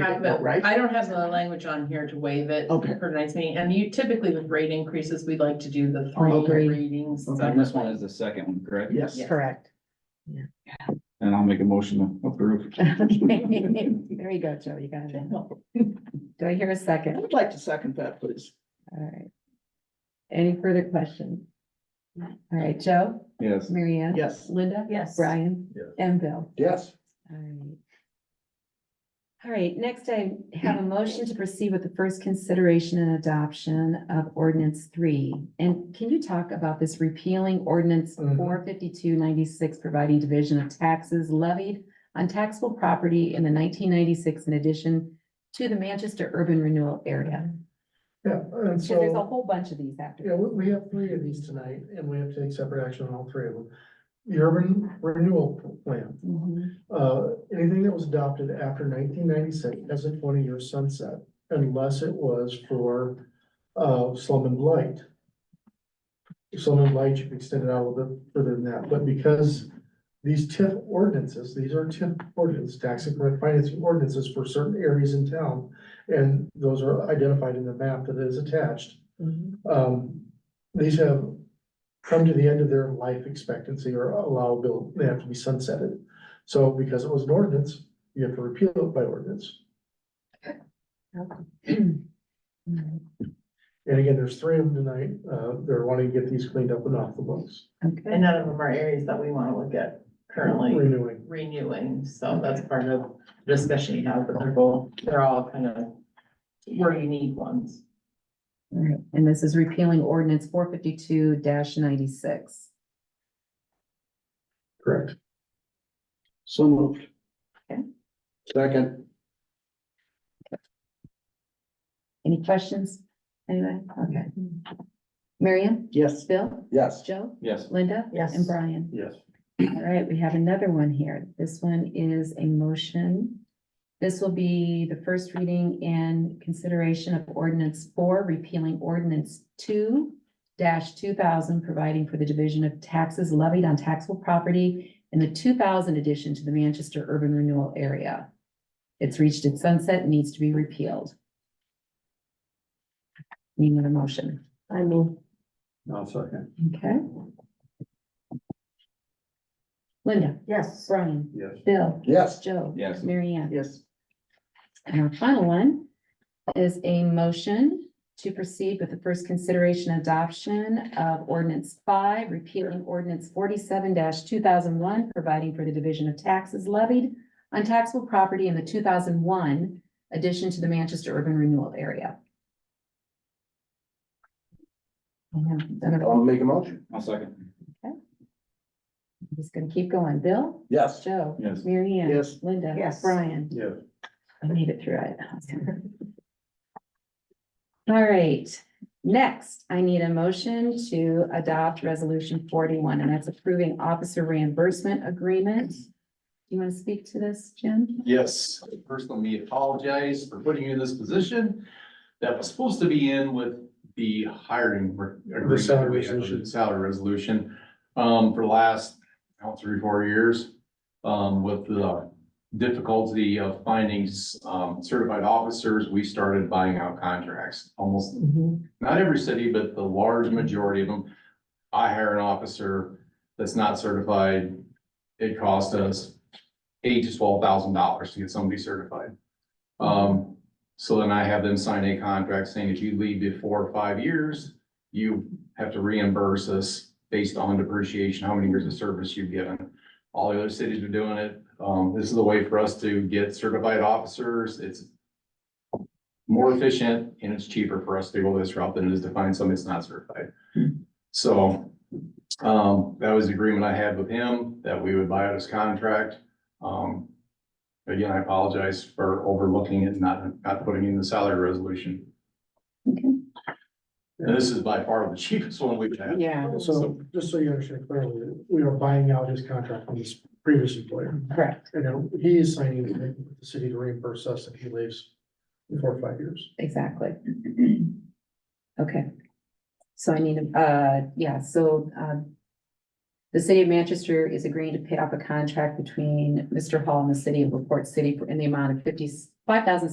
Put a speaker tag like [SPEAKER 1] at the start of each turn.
[SPEAKER 1] I- but
[SPEAKER 2] Right?
[SPEAKER 1] I don't have the language on here to waive it
[SPEAKER 2] Okay.
[SPEAKER 1] for tonight's meeting, and you typically with rate increases, we'd like to do the
[SPEAKER 2] Oh,
[SPEAKER 1] three
[SPEAKER 2] okay.
[SPEAKER 1] readings.
[SPEAKER 2] Okay.
[SPEAKER 3] And this one is the second one, correct?
[SPEAKER 2] Yes.
[SPEAKER 1] Yeah.
[SPEAKER 4] Correct.
[SPEAKER 3] And I'll make a motion to approve.
[SPEAKER 4] Okay. There you go, Joe, you got it. Do I hear a
[SPEAKER 2] I
[SPEAKER 4] second?
[SPEAKER 2] would like to second that, please.
[SPEAKER 4] All right. Any further questions? All right, Joe,
[SPEAKER 3] Yes.
[SPEAKER 4] Mary Ann?
[SPEAKER 2] Yes.
[SPEAKER 4] Linda?
[SPEAKER 1] Yes.
[SPEAKER 4] Brian?
[SPEAKER 2] Yes.
[SPEAKER 4] And Bill?
[SPEAKER 2] Yes.
[SPEAKER 4] All right. All right, next I have a motion to proceed with the first consideration and adoption of ordinance three. And can you talk about this repealing ordinance
[SPEAKER 5] Mm-hmm.
[SPEAKER 2] Mhm.
[SPEAKER 4] four fifty-two ninety-six, providing division of taxes levied on taxable property in the nineteen ninety-six in addition to the Manchester urban renewal area?
[SPEAKER 5] Yeah, and
[SPEAKER 4] So there's a
[SPEAKER 5] so,
[SPEAKER 4] whole bunch of these after.
[SPEAKER 5] yeah, we, we have three of these tonight, and we have to take separate action on all three of them. The urban renewal plan,
[SPEAKER 4] Mhm.
[SPEAKER 5] uh, anything that was adopted after nineteen ninety-six has a twenty-year sunset, unless it was for, uh, slum and blight. Slum and blight, you can extend it out a little bit further than that, but because these TIF ordinances, these are TIF ordinances, tax and correct financing ordinances for certain areas in town, and those are identified in the map that is attached.
[SPEAKER 4] mm-hmm.
[SPEAKER 5] Um, these have come to the end of their life expectancy or allowable, they have to be sunsetted. So because it was an ordinance, you have to repeal it by ordinance. And again, there's three of them tonight, uh, they're wanting to get these cleaned up and off the books,
[SPEAKER 4] Okay.
[SPEAKER 1] And none of them are areas that we wanna look at currently
[SPEAKER 5] renewing.
[SPEAKER 1] renewing, so that's part of the discussion you have, but they're both, they're all kind of where you need ones.
[SPEAKER 4] All right, and this is repealing ordinance four fifty-two ninety-six.
[SPEAKER 5] Correct.
[SPEAKER 3] So moved.
[SPEAKER 4] Okay.
[SPEAKER 3] Second.
[SPEAKER 4] Any questions? Anyone? Okay. Marion?
[SPEAKER 2] Yes.
[SPEAKER 4] Bill?
[SPEAKER 2] Yes.
[SPEAKER 4] Joe?
[SPEAKER 3] Yes.
[SPEAKER 4] Linda?
[SPEAKER 1] Yes.
[SPEAKER 4] And Brian?
[SPEAKER 2] Yes.
[SPEAKER 4] All right, we have another one here. This one is a motion. This will be the first reading and consideration of ordinance four, repealing ordinance two two thousand, providing for the division of taxes levied on taxable property in the two thousand addition to the Manchester urban renewal area. It's reached its sunset, and needs to be repealed. Need another motion?
[SPEAKER 1] I mean.
[SPEAKER 3] No, second.
[SPEAKER 4] Okay. Linda? Yes. Brian?
[SPEAKER 3] Yes.
[SPEAKER 4] Bill?
[SPEAKER 2] Yes.
[SPEAKER 4] Joe?
[SPEAKER 3] Yes.
[SPEAKER 4] Mary Ann?
[SPEAKER 2] Yes.
[SPEAKER 4] And our final one is a motion to proceed with the first consideration adoption of ordinance five, repealing ordinance forty-seven two thousand one, providing for the division of taxes levied on taxable property in the two thousand one addition to the Manchester urban renewal area. I know, done it all.
[SPEAKER 2] make a motion.
[SPEAKER 3] I'll second.
[SPEAKER 4] I'm Just gonna keep going. Bill?
[SPEAKER 2] Yes.
[SPEAKER 4] Joe?
[SPEAKER 3] Yes.
[SPEAKER 4] Mary Ann?
[SPEAKER 2] Yes.
[SPEAKER 4] Linda?
[SPEAKER 1] Yes.
[SPEAKER 4] Brian?
[SPEAKER 2] Yes.
[SPEAKER 4] I made it through it. All right, next, I need a motion to adopt resolution forty-one, and that's approving officer reimbursement agreement. You want to speak to this, Jim?
[SPEAKER 6] Yes, first let me apologize for putting you in this position that was supposed to be in with the hiring. re- agreement
[SPEAKER 5] salary
[SPEAKER 6] we had,
[SPEAKER 5] resolution.
[SPEAKER 6] the Salary resolution, um, for the last, I don't know, three, four years. Um, with the difficulty of finding, s- um, certified officers, we started buying out contracts. Almost,
[SPEAKER 5] Mm-hmm.
[SPEAKER 6] not every city, but the large majority of them. I hire an officer that's not certified. It costs us eight to twelve thousand dollars to get somebody certified. Um, so then I have them sign a contract saying if you leave before five years, you have to reimburse us based on depreciation, how many years of service you've given. All the other cities are doing it. Um, this is the way for us to get certified officers. It's more efficient and it's cheaper for us to go this route than it is to find somebody that's not certified. So, um, that was the agreement I had with him, that we would buy out his contract. Um, again, I apologize for overlooking it, and not, not putting in the salary resolution.
[SPEAKER 4] Okay.
[SPEAKER 6] And this is by far the cheapest one we've had.
[SPEAKER 4] Yeah.
[SPEAKER 5] So, just so you understand clearly, we are buying out his contract from his previous employer,
[SPEAKER 4] Correct,
[SPEAKER 5] and now he is signing the agreement with the city to reimburse us if he leaves before five years.
[SPEAKER 4] exactly. Okay. So I need, a- uh, yeah, so, um, The city of Manchester is agreeing to pay off a contract between Mr. Hall and the city of LaPorte City for- in the amount of fifty, five thousand